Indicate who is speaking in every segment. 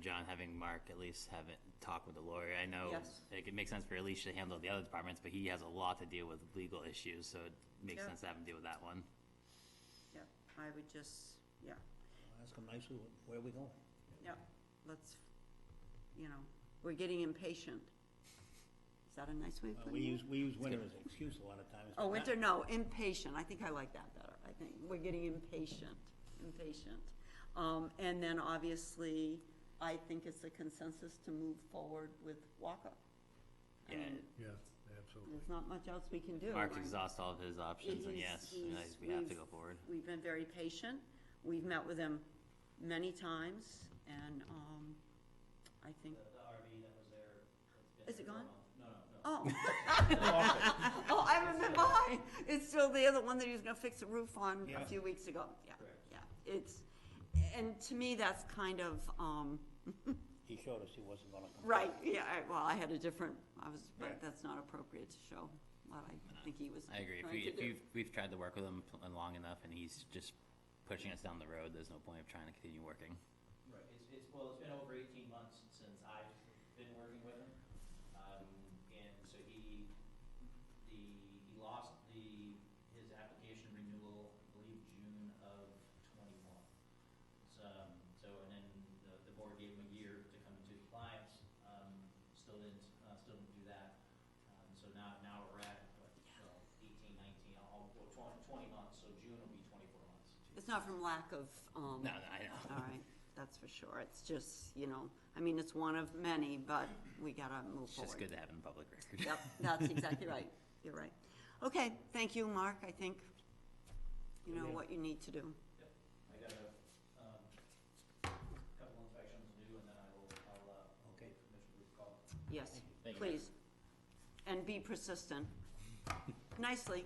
Speaker 1: John, having Mark at least have it, talk with the lawyer, I know
Speaker 2: Yes.
Speaker 1: like, it makes sense for Alicia to handle the other departments, but he has a lot to deal with legal issues, so it makes
Speaker 2: Yeah.
Speaker 1: sense to have him deal with that one.
Speaker 2: Yep, I would just, yeah,
Speaker 3: Ask them nicely, wh- where are we going?
Speaker 2: yep, let's, you know, we're getting impatient. Is that a nice way of
Speaker 3: Uh,
Speaker 2: putting
Speaker 3: We
Speaker 2: it?
Speaker 3: use, we use winter as an excuse a lot of times.
Speaker 2: Oh,
Speaker 3: but
Speaker 2: winter,
Speaker 3: not-
Speaker 2: no, impatient, I think I like that better, I think, we're getting impatient, impatient. Um, and then obviously, I think it's a consensus to move forward with Walker. I
Speaker 1: Yeah.
Speaker 2: mean,
Speaker 4: Yeah, absolutely.
Speaker 2: There's not much else we can do.
Speaker 1: Mark's
Speaker 2: right?
Speaker 1: exhausted all of his options, and
Speaker 2: He's-
Speaker 1: yes,
Speaker 2: he's-
Speaker 1: like, we have to
Speaker 2: we've-
Speaker 1: go forward.
Speaker 2: We've been very patient, we've met with him many times, and, um, I think,
Speaker 5: The, the RV that was there. that's been
Speaker 2: Is it
Speaker 5: there for a
Speaker 2: gone? oh.
Speaker 5: month. No, no, no.
Speaker 2: Oh, I remember, I- it's still there, the one that he was gonna fix the roof on a
Speaker 3: Yeah.
Speaker 2: few weeks ago, yeah,
Speaker 5: Correct.
Speaker 2: yeah, it's, and to me, that's kind of, um,
Speaker 3: He showed us he wasn't gonna come.
Speaker 2: right, yeah, I- well, I had a different, I was,
Speaker 3: Yeah.
Speaker 2: but that's not appropriate to show what I think he was
Speaker 1: I
Speaker 2: trying
Speaker 1: agree, if
Speaker 2: to
Speaker 1: we, if
Speaker 2: do.
Speaker 1: we've, we've tried to work with him pl- long enough and he's just pushing us down the road, there's no point of trying to continue working.
Speaker 5: Right, it's, it's, well, it's been over eighteen months since I've been working with him. Um, and so he, the, he lost the, his application renewal, I believe, June of twenty-one. So, um, so, and then the, the board gave him a year to come into compliance, um, still didn't, uh, still didn't do that. Um, so now, now we're at, what, well, eighteen, nineteen, all, well, twenty, twenty months, so June will be twenty-four months.
Speaker 2: It's not from lack of, um,
Speaker 1: No, no, I know.
Speaker 2: all right, that's for sure, it's just, you know, I mean, it's one of many, but we gotta move
Speaker 1: It's
Speaker 2: forward.
Speaker 1: just good to have in public record.
Speaker 2: Yep, that's exactly right, you're right. Okay, thank you, Mark, I think you know
Speaker 3: Yeah.
Speaker 2: what you need to do.
Speaker 5: I got a, um, couple inspections due, and then I will, I'll, uh,
Speaker 3: Okay.
Speaker 5: give Mr. Group call.
Speaker 2: Yes,
Speaker 1: Thank you.
Speaker 2: please. And be persistent. Nicely.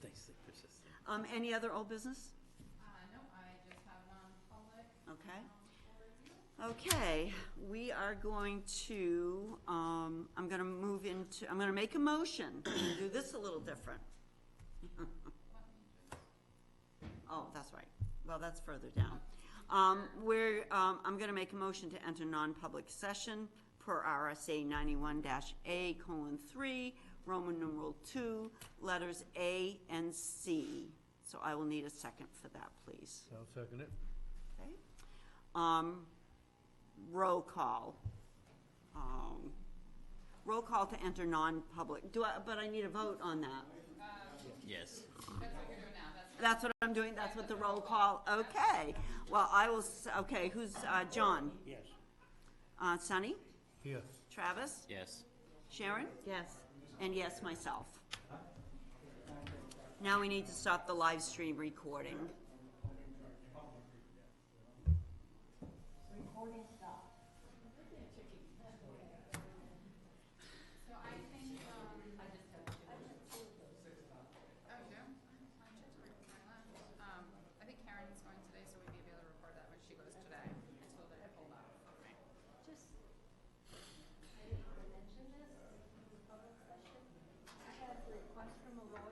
Speaker 1: Thanks, like, persistent.
Speaker 2: Um, any other old business?
Speaker 6: Uh, no, I just have non-public,
Speaker 2: Okay.
Speaker 6: um, for you.
Speaker 2: Okay, we are going to, um, I'm gonna move into, I'm gonna make a motion, and do this a little different. Oh, that's right, well, that's further down. Um, we're, um, I'm gonna make a motion to enter non-public session per RSA ninety-one dash A colon three, Roman numeral two, letters A and C. So I will need a second for that, please.
Speaker 4: I'll second it.
Speaker 2: Okay. Um, roll call. Um, roll call to enter non-public. Do I, but I need a vote on that.
Speaker 1: Yes.
Speaker 6: That's what you're doing now, that's
Speaker 2: That's what I'm doing, that's what the roll call, okay. Well, I will, s- okay, who's, uh, John?
Speaker 3: Yes.
Speaker 2: Uh, Sunny?
Speaker 4: Yes.
Speaker 2: Travis?
Speaker 1: Yes.
Speaker 2: Sharon? Yes. And yes, myself. Now we need to stop the live stream recording.
Speaker 6: So I think, um. I just have two. Oh, you do? I checked my, my left. Um, I think Karen's going today, so we may be able to record that when she goes today. I told her to hold off. Okay.
Speaker 7: Just, I didn't mention this in the public session. I have a request from a lawyer